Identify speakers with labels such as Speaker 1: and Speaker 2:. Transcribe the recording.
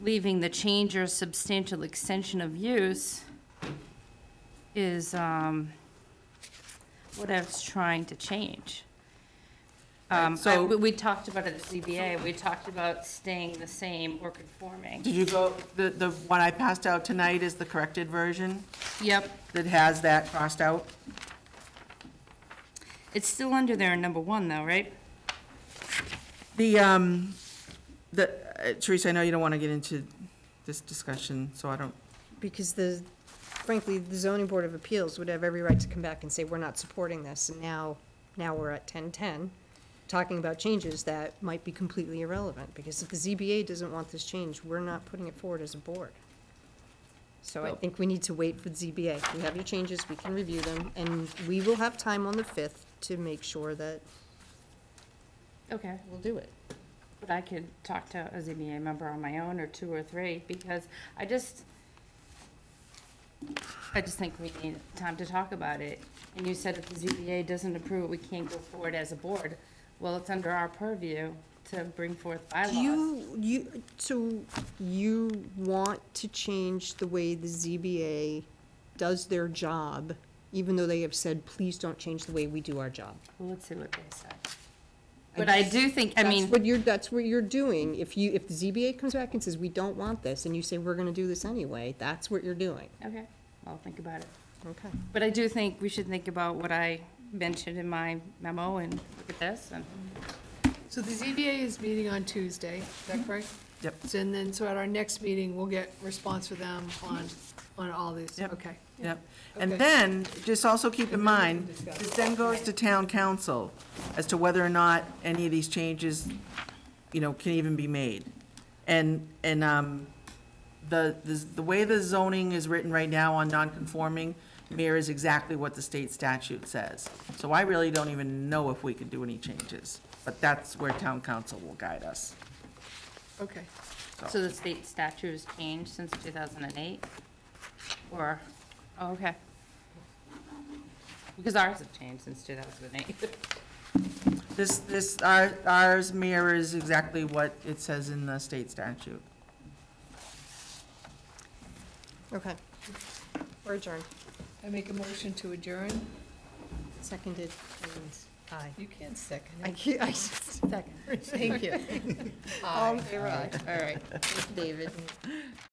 Speaker 1: leaving the change or substantial extension of use is, um, what I was trying to change. Um, I-
Speaker 2: so-
Speaker 1: we, we talked about it at ZBA, we talked about staying the same or conforming.
Speaker 2: Did you go, the, the one I passed out tonight is the corrected version
Speaker 1: Yep,
Speaker 2: that has that crossed out?
Speaker 1: it's still under there in number one though, right?
Speaker 2: The, um, the, uh, Teresa, I know you don't want to get into this discussion, so I don't,
Speaker 3: Because the, frankly, the zoning board of appeals would have every right to come back and say, we're not supporting this, and now, now we're at ten-ten, talking about changes that might be completely irrelevant, because if the ZBA doesn't want this change, we're not putting it forward as a board. So I think we need to wait for the ZBA. We have your changes, we can review them, and we will have time on the fifth to make sure that
Speaker 1: Okay.
Speaker 3: we'll do it.
Speaker 1: But I could talk to a ZBA member on my own, or two or three, because I just, I just think we need time to talk about it. And you said if the ZBA doesn't approve, it, we can't go forward as a board. Well, it's under our purview to bring forth
Speaker 3: Do
Speaker 1: bylaws.
Speaker 3: you, you, so you want to change the way the ZBA does their job, even though they have said, please don't change the way we do our job?
Speaker 1: Well, let's see what they said. But I do think, I mean,
Speaker 3: That's what you're, that's what you're doing. If you, if the ZBA comes back and says, we don't want this, and you say, we're gonna do this anyway, that's what you're doing.
Speaker 1: okay, I'll think about it.
Speaker 3: Okay.
Speaker 1: But I do think we should think about what I mentioned in my memo and look at this and.
Speaker 4: So the ZBA is meeting on Tuesday, is that correct?
Speaker 2: Mm-hmm. yep.
Speaker 4: So, And then, so at our next meeting, we'll get response from them on, on all these,
Speaker 2: Yep.
Speaker 4: okay.
Speaker 2: Yep. And
Speaker 4: Okay.
Speaker 2: then, just also keep in
Speaker 4: And then we
Speaker 2: mind,
Speaker 4: can discuss.
Speaker 2: this then goes to town council as to whether or not any of these changes, you know, can even be made. And, and, um, the, the- the way the zoning is written right now on non-conforming mirrors exactly what the state statute says. So I really don't even know if we could do any changes, but that's where town council will guide us.
Speaker 4: Okay,
Speaker 1: So the state statute has changed since 2008? Or, oh, okay. Because ours have changed since 2008.
Speaker 2: This, this, our- ours mirrors exactly what it says in the state statute.
Speaker 3: Okay. We're adjourned.
Speaker 4: I make a motion to adjourn.
Speaker 3: Seconded, and aye.
Speaker 4: You can't second
Speaker 3: I,
Speaker 4: it.
Speaker 3: can't- I just, second, thank you. All in favor, aye. All right, David.